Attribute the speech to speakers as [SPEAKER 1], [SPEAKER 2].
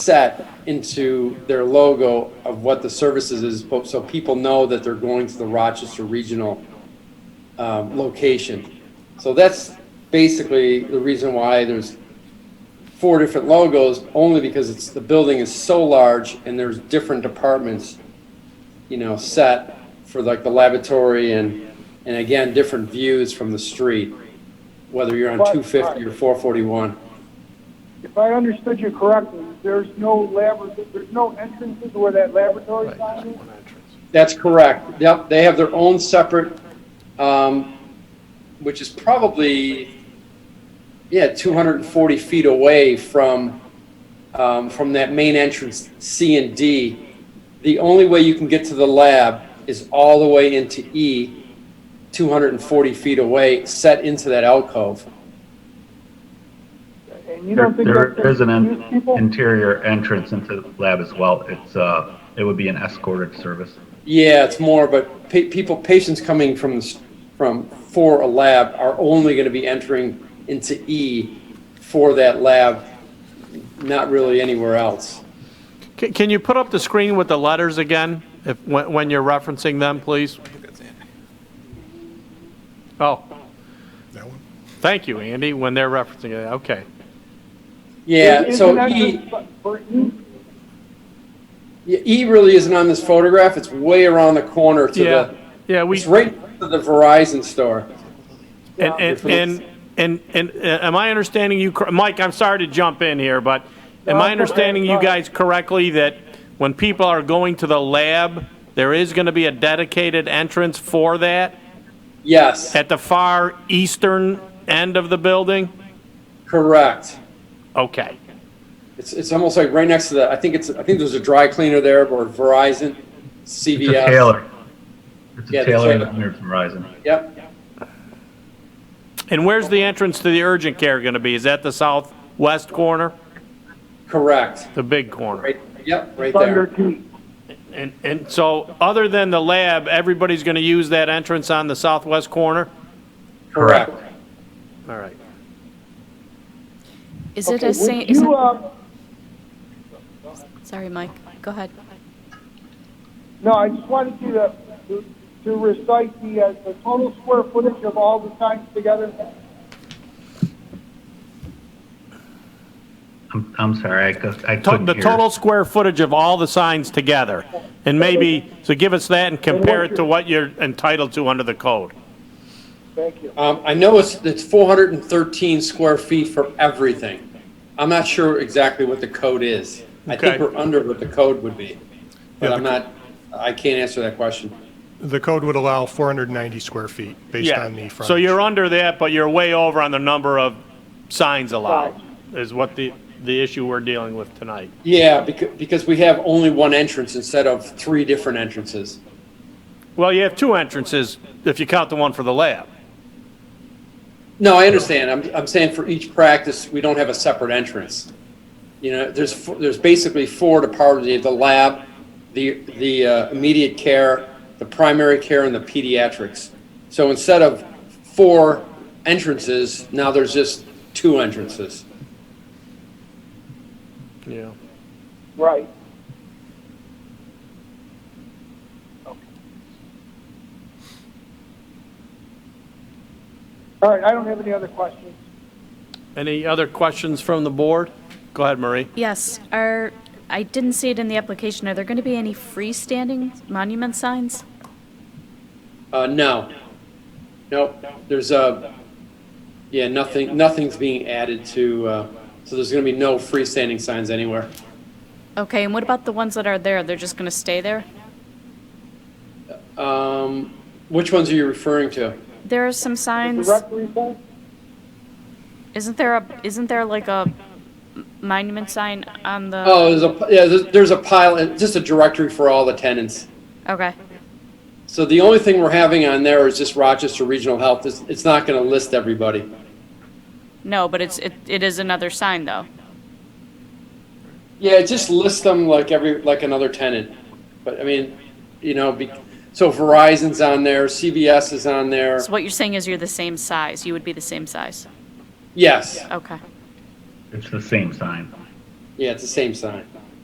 [SPEAKER 1] set into their logo of what the services is, but- so people know that they're going to the Rochester Regional um, location. So that's basically the reason why there's four different logos, only because it's, the building is so large and there's different departments, you know, set for like the laboratory and, and again, different views from the street, whether you're on
[SPEAKER 2] Right,
[SPEAKER 1] 250 or 441.
[SPEAKER 2] If I understood you correctly, there's no labor, there's no entrances where that laboratory sign is?
[SPEAKER 1] That's correct. Yep, they have their own separate, um, which is probably, yeah, 240 feet away from, um, from that main entrance, C and D. The only way you can get to the lab is all the way into E, 240 feet away, set into that alcove.
[SPEAKER 2] And you
[SPEAKER 3] There
[SPEAKER 2] don't think that's
[SPEAKER 3] there
[SPEAKER 2] going
[SPEAKER 3] is
[SPEAKER 2] to
[SPEAKER 3] an
[SPEAKER 2] confuse
[SPEAKER 3] in-
[SPEAKER 2] people?
[SPEAKER 3] interior entrance into the lab as well. It's, uh, it would be an escorted service.
[SPEAKER 1] Yeah, it's more, but pa- people, patients coming from, the s- from, for a lab are only gonna be entering into E for that lab, not really anywhere else.
[SPEAKER 4] Can can you put up the screen with the letters again, if, when when you're referencing them, please? Oh,
[SPEAKER 5] That one?
[SPEAKER 4] thank you, Andy, when they're referencing it, okay.
[SPEAKER 1] Yeah,
[SPEAKER 2] Is-
[SPEAKER 1] so
[SPEAKER 2] isn't that
[SPEAKER 1] E,
[SPEAKER 2] just for E?
[SPEAKER 1] E really isn't on this photograph, it's way around the corner to
[SPEAKER 4] Yeah,
[SPEAKER 1] the,
[SPEAKER 4] yeah, we,
[SPEAKER 1] it's right to the Verizon store.
[SPEAKER 4] and, and, and, and, and uh, am I understanding you, cor- Mike, I'm sorry to jump in here, but
[SPEAKER 2] No,
[SPEAKER 4] am I
[SPEAKER 2] it's okay,
[SPEAKER 4] understanding you
[SPEAKER 2] it's fine.
[SPEAKER 4] guys correctly that when people are going to the lab, there is going to be a dedicated entrance for that
[SPEAKER 1] Yes,
[SPEAKER 4] at the far eastern end of the building?
[SPEAKER 1] correct.
[SPEAKER 4] Okay.
[SPEAKER 1] It's, it's almost like right next to the, I think it's, I think there's a dry cleaner there, or Verizon,
[SPEAKER 3] It's a
[SPEAKER 1] CVS.
[SPEAKER 3] tailor. It's
[SPEAKER 1] Yeah,
[SPEAKER 3] a
[SPEAKER 1] that's
[SPEAKER 3] tailor
[SPEAKER 1] right.
[SPEAKER 3] that's near Verizon.
[SPEAKER 1] Yep,
[SPEAKER 4] And where's the entrance to the urgent care going to be? Is that the southwest corner,
[SPEAKER 1] correct,
[SPEAKER 4] the big corner?
[SPEAKER 1] right, yep, right there.
[SPEAKER 2] Thunder T.
[SPEAKER 4] And, and so, other than the lab, everybody's going to use that entrance on the southwest corner?
[SPEAKER 1] Correct.
[SPEAKER 4] All right.
[SPEAKER 6] Is it
[SPEAKER 2] Okay,
[SPEAKER 6] a same?
[SPEAKER 2] would you, uh,
[SPEAKER 6] sorry, Mike. Go ahead.
[SPEAKER 2] No, I just wanted you to, to- to recite the, uh, the total square footage of all the signs together.
[SPEAKER 3] I'm, I'm sorry, I cou- I
[SPEAKER 4] To-
[SPEAKER 3] couldn't
[SPEAKER 4] The
[SPEAKER 3] hear.
[SPEAKER 4] total square footage of all the signs together, and maybe, so give us that and compare it to what you're entitled to under the code.
[SPEAKER 2] Thank you.
[SPEAKER 1] Um, I know it's, it's four hundred and thirteen square feet for everything. I'm not sure exactly what the code is. I think
[SPEAKER 4] Okay.
[SPEAKER 1] we're under what the code would be, but
[SPEAKER 5] Yeah,
[SPEAKER 1] I'm
[SPEAKER 5] the-
[SPEAKER 1] not, I can't answer that question.
[SPEAKER 5] The code would allow 490 square feet based
[SPEAKER 4] Yeah.
[SPEAKER 5] on the front.
[SPEAKER 4] So you're under that, but you're way over on the number of signs allowed, is what the, the issue we're dealing with tonight.
[SPEAKER 1] Yeah, because, because we have only one entrance instead of three different entrances.
[SPEAKER 4] Well, you have two entrances, if you count the one for the lab.
[SPEAKER 1] No, I understand. I'm, I'm saying for each practice, we don't have a separate entrance. You know, there's, four- there's basically four departments, You have the lab, the, the uh, immediate care, the primary care, and the pediatrics. So instead of four entrances, now there's just two entrances.
[SPEAKER 4] Yeah.
[SPEAKER 2] Right. Okay. All right, I don't have any other questions.
[SPEAKER 4] Any other questions from the board? Go ahead, Marie.
[SPEAKER 6] Yes. Are I didn't see it in the application. Are there going to be any freestanding monument signs?
[SPEAKER 1] Uh, no. Nope, there's a, yeah, nothing, nothing's being added to, uh, so there's gonna be no freestanding signs anywhere.
[SPEAKER 6] Okay. And what about the ones that are there? They're just going to stay there.
[SPEAKER 1] Um, which ones are you referring to?
[SPEAKER 6] There are some signs.
[SPEAKER 2] Directory sign?
[SPEAKER 6] Isn't there a? Isn't there like a monument sign on the?
[SPEAKER 1] Oh, there's a, yeah, there's, there's a pile, and just a directory for all the tenants.
[SPEAKER 6] Okay.
[SPEAKER 1] So the only thing we're having on there is just Rochester Regional Health. It's, it's not gonna list everybody.
[SPEAKER 6] No, but it's it, it is another sign though.
[SPEAKER 1] Yeah, just list them like every, like another tenant. But I mean, you know, be, so Verizon's on there, CVS is on there.
[SPEAKER 6] So what you're saying is you're the same size. You would be the same size.
[SPEAKER 1] Yes,
[SPEAKER 6] Okay.
[SPEAKER 3] It's the same sign.
[SPEAKER 1] yeah, it's the same sign.